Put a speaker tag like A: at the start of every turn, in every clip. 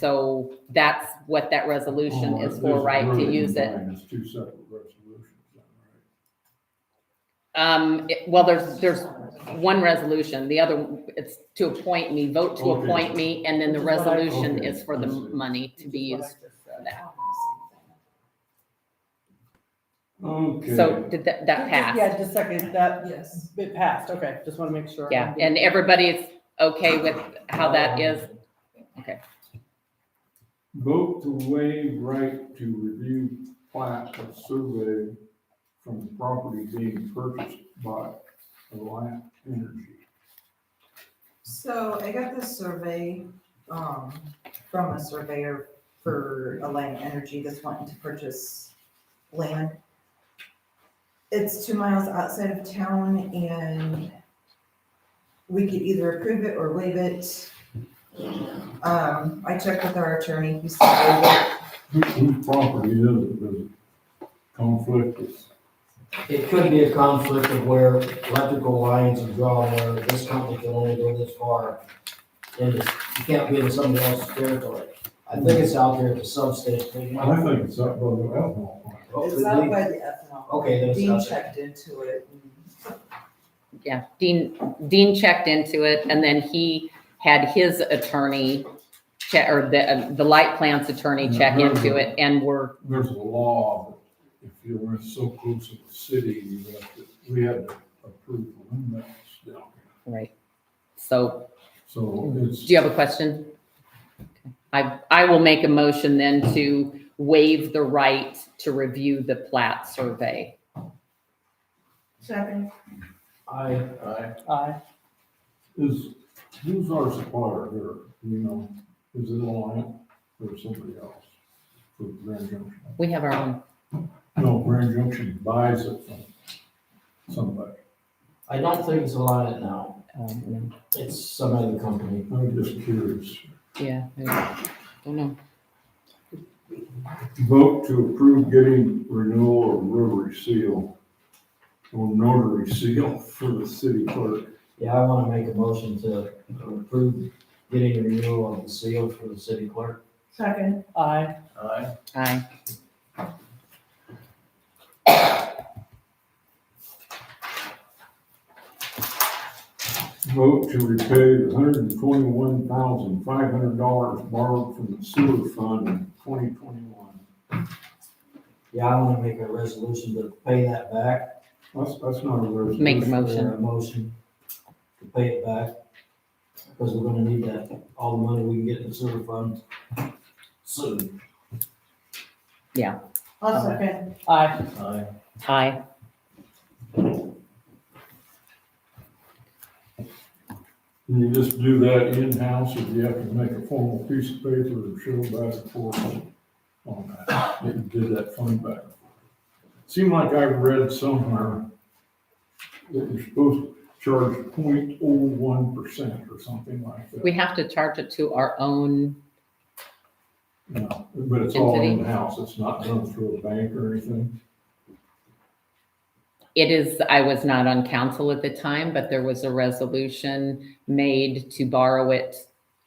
A: So that's what that resolution
B: Oh,
A: is
B: this
A: for, right, to
B: really
A: use it.
B: combined. It's two separate resolutions, is that right?
A: Um, it- well, there's, there's one resolution, the other, it's to appoint me, vote to
B: Okay.
A: appoint me, and then the
C: Which is what I-
A: resolution
B: Okay,
A: is for the
B: I see.
A: money to be used for that.
B: Okay.
A: So did that, that pass?
C: Yeah, just a second, that,
D: Yes.
C: it passed, okay, just want to make sure.
A: Yeah, and everybody's okay with how
B: Oh.
A: that is? Okay.
B: Vote to waive right to review plat of survey from the property being purchased by Alliant Energy.
D: So I got this survey, um, from a surveyor for Alliant Energy that's wanting to purchase land. It's two miles outside of town and we could either approve it or waive it. Um, I checked with our attorney, he said waive it.
B: Who- Whose property is it? Does it conflict with?
E: It could be a conflict of where electrical lines are drawn, where this company can only go this far. And it's, you can't be in somebody else's territory. I think it's out there at the substation.
B: I think it's up by the ethanol plant.
D: It's out by the ethanol.
E: Oh, Okay, then it's
D: Dean
E: out there.
D: checked into it and
A: Yeah, Dean, Dean checked into it and then he had his attorney check, or the, the light plant's attorney
B: Mm-hmm.
A: check into it and we're,
B: There's a law that if you're so close to the city, you have to, we had to approve the limits down here.
A: right. So
B: So it's.
A: Do you have a question? Okay. I, I will make a motion then to waive the right to review the plat survey.
D: Seven.
E: I,
C: Aye.
B: Is, who's our supplier here, you know, is it Alliant or somebody else? For Grand Junction?
A: We have our own,
B: No, Grand Junction buys it from somebody.
E: I don't think it's allowed now.
A: um,
E: It's some other company.
B: I'm just curious.
A: yeah, I don't know.
B: Vote to approve getting renewal of rotary seal or notary seal for the city clerk.
E: Yeah, I want to make a motion to approve getting a renewal of the seal for the city clerk.
C: Second. Aye.
A: Aye.
B: Vote to repay the hundred and twenty-one thousand, five hundred dollars borrowed from the sewer fund in twenty twenty-one.
E: Yeah, I want to make a resolution to pay that back.
B: That's, that's not a resolution.
A: Make a
E: Or
A: motion.
E: a motion to pay it back. Because we're gonna need that, all the money we can get in the sewer fund soon.
D: I'll second.
C: Aye.
E: Aye.
A: Aye.
B: Can you just do that in-house, or do you have to make a formal piece of paper and show back and forth on that? That you did that fund back. Seemed like I read somewhere that you're supposed to charge 0.01 percent or something like that.
A: We have to charge it to our own,
B: No, But it's all
A: Entity.
B: in-house, it's not done through a bank or anything.
A: it is, I was not on council at the time, but there was a resolution made to borrow it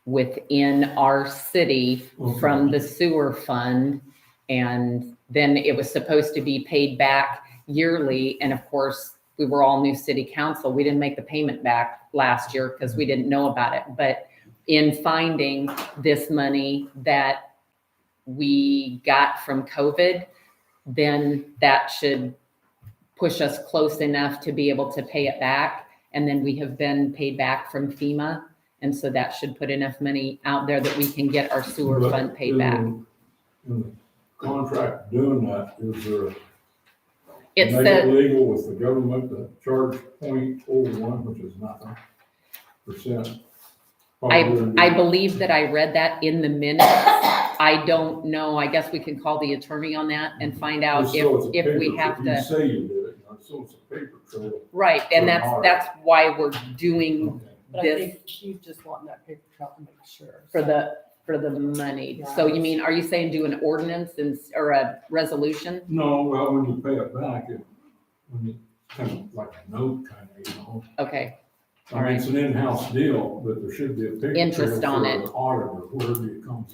A: within our city from the sewer fund. And then it was supposed to be paid back yearly. And of course, we were all new city council. We didn't make the payment back last year because we didn't know about it. But in finding this money that we got from COVID, then that should push us close enough to be able to pay it back. And then we have been paid back from FEMA. And so that should put enough money out there that we can get our sewer
B: But uh,
A: fund paid
B: in
A: back.
B: the- In the contract doing that, is there a
A: It
B: Make
A: said,
B: Legal with the government to charge point oh one, which is nothing percent.
A: I believe that I read that in the minutes. I don't know. I guess we can call the attorney on that and find out if, if we have
B: You
A: to.
B: say you did it, you know, so it's a paper trail.
A: Right, and that's,
B: Or-
A: that's why we're doing
C: But I
A: this
C: think she's just wanting that paper trail to make sure.
A: for the, for the money. So you mean, are you saying do an ordinance and, s- or a resolution?
B: No, well, when you pay it back, it, when you, kind of like a note kind of, you know.
A: Okay,
B: I mean, it's an in-house deal, but there should be a paper trail.
A: Interest on
B: for
A: it.
B: the Auditor, wherever it comes